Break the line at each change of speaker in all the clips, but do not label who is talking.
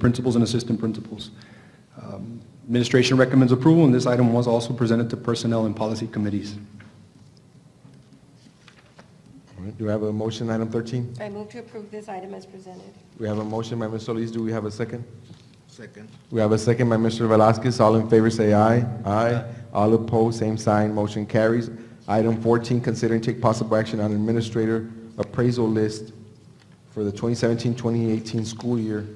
principals and assistant principals. Um, Administration recommends approval, and this item was also presented to Personnel and Policy Committees.
All right, Do we have a motion, item 13?
I move to approve this item as presented.
We have a motion by Ms. Solis, do we have a second?
Second.
We have a second by Mr. Velazquez, all in favor say aye. Aye. All opposed, same sign, motion carries. Item 14, consider and take possible action on administrator appraisal list for the 2017-2018 school year.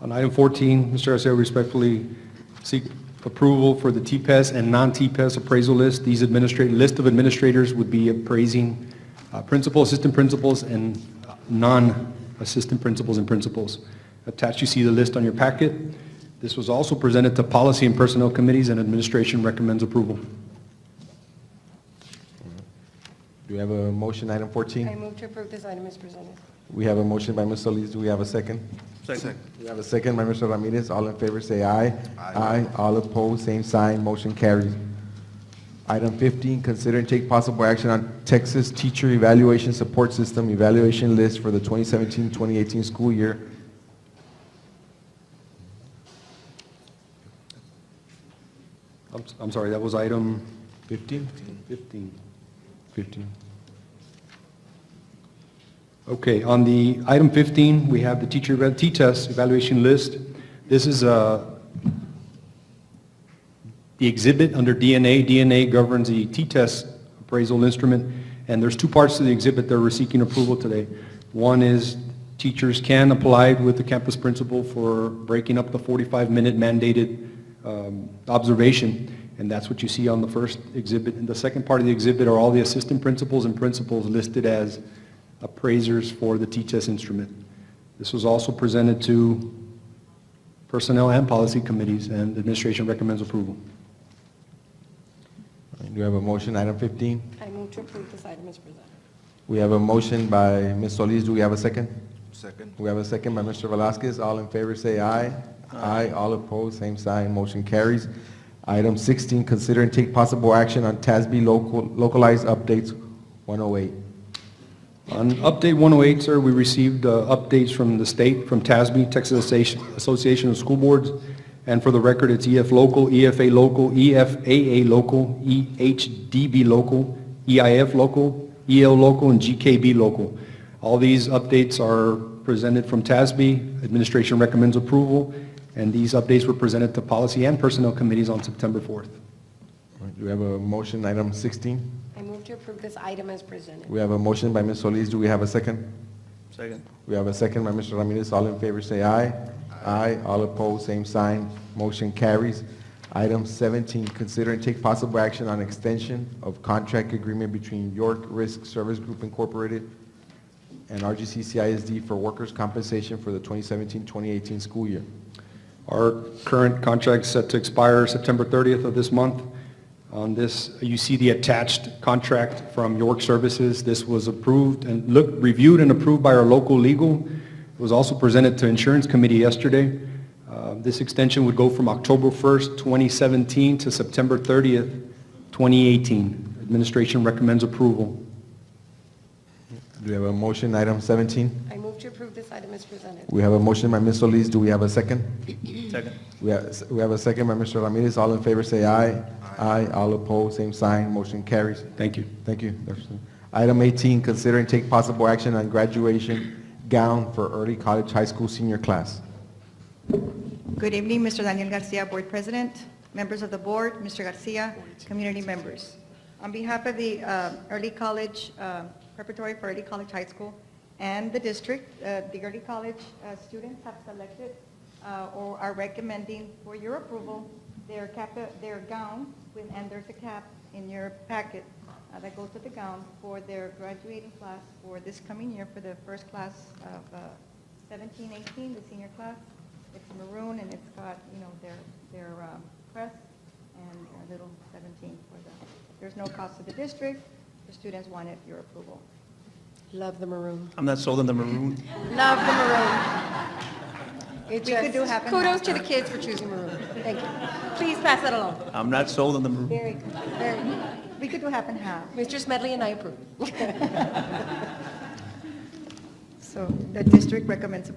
On item 14, Mr. Garcia respectfully seek approval for the TPES and non-TPES E appraisal list. These administrate, list of administrators would be appraising uh, principal, assistant principals, and uh, non-assistant principals and principals. Attached, you see the list on your packet. This was also presented to Policy and Personnel Committees, and Administration recommends approval.
Do we have a motion, item
I
14?
move to approve this item as presented.
We have a motion by Ms. Solis, do we have a second?
Second.
We have a second by Mr. Ramirez, all in favor say aye. Aye. All opposed, same sign, motion carries. Item 15, consider and take possible action on Texas Teacher Evaluation Support System Evaluation List for the 2017-2018 school year.
I'm s- I'm sorry, that was item
15?
15.
15.
Okay, on the item 15, we have the teacher, eval- T-test evaluation list. This is uh, the exhibit under DNA. DNA governs the T-test appraisal instrument, and there's two parts to the exhibit that we're seeking approval today. One is teachers can apply with the campus principal for breaking up the 45-minute mandated um, observation, and that's what you see on the first exhibit. And the second part of the exhibit are all the assistant principals and principals listed as appraisers for the T-test instrument. This was also presented to Personnel and Policy Committees, and the administration recommends approval.
Do we have a motion, item 15?
I move to approve this item as presented.
We have a motion by Ms. Solis, do we have a second?
Second.
We have a second by Mr. Velazquez. All in favor, say aye. Aye. All opposed, same sign. Motion carries. Item 16, consider and take possible action on TASB local localized updates 108.
On update 108, sir, we received uh, updates from the state, from TASB, Texas Association- Association of School Boards, and for the record, it's EF Local, EFA Local, E EFAA Local, E EHDB Local, EIF Local, EL Local, and GKB Local. All these updates are presented from TASB. Administration recommends approval, and these updates were presented to Policy and Personnel Committees on September 4th.
All right, Do we have a motion, item 16?
I move to approve this item as presented.
We have a motion by Ms. Solis. Do we have a second?
Second.
We have a second by Mr. Ramirez. All in favor, say aye. Aye. All opposed, same sign. Motion carries. Item 17, consider and take possible action on extension of contract agreement between York Risk Service Group Incorporated and RGC CISD for workers' compensation for the 2017-2018 school year.
Our current contract's set to expire September 30th of this month. On this, you see the attached contract from York Services. This was approved and looked, reviewed and approved by our local legal. It was also presented to Insurance Committee yesterday. Uh, This extension would go from October 1st, 2017 to September 30th, 2018. Administration recommends approval.
Do we have a motion, item 17?
I move to approve this item as presented.
We have a motion by Ms. Solis. Do we have a second?
Second.
We have, we have a second by Mr. Ramirez. All in favor, say aye. Aye. All opposed, same sign. Motion carries.
Thank you.
Thank you. Dr. Seuss. Item 18, consider and take possible action on graduation gown for early college high school senior class.
Good evening, Mr. Daniel Garcia, Board President, members of the board, Mr. Garcia, community members. On behalf of the uh, Early College, uh, Preparatory for Early College High School and the district, uh, the early college uh, students have selected uh, or are recommending for your approval their cap, uh, their gown, with- and there's a cap in your packet uh, that goes with the gown for their graduating class for this coming year for the first class of uh, 17, 18, the senior class. It's maroon and it's got, you know, their, their um, crest and a little 17 for the, there's no cost to the district. The students wanted your approval.
Love the maroon.
I'm not sold on the maroon.
Love the maroon. It
We could
just-
do half and
Kudos
half.
to the kids for choosing maroon. Thank you. Please pass that along.
I'm not sold on the maroon.
Very good, very good. We could do half and half.
Mr. Smedley and I approve.
So the district recommends approval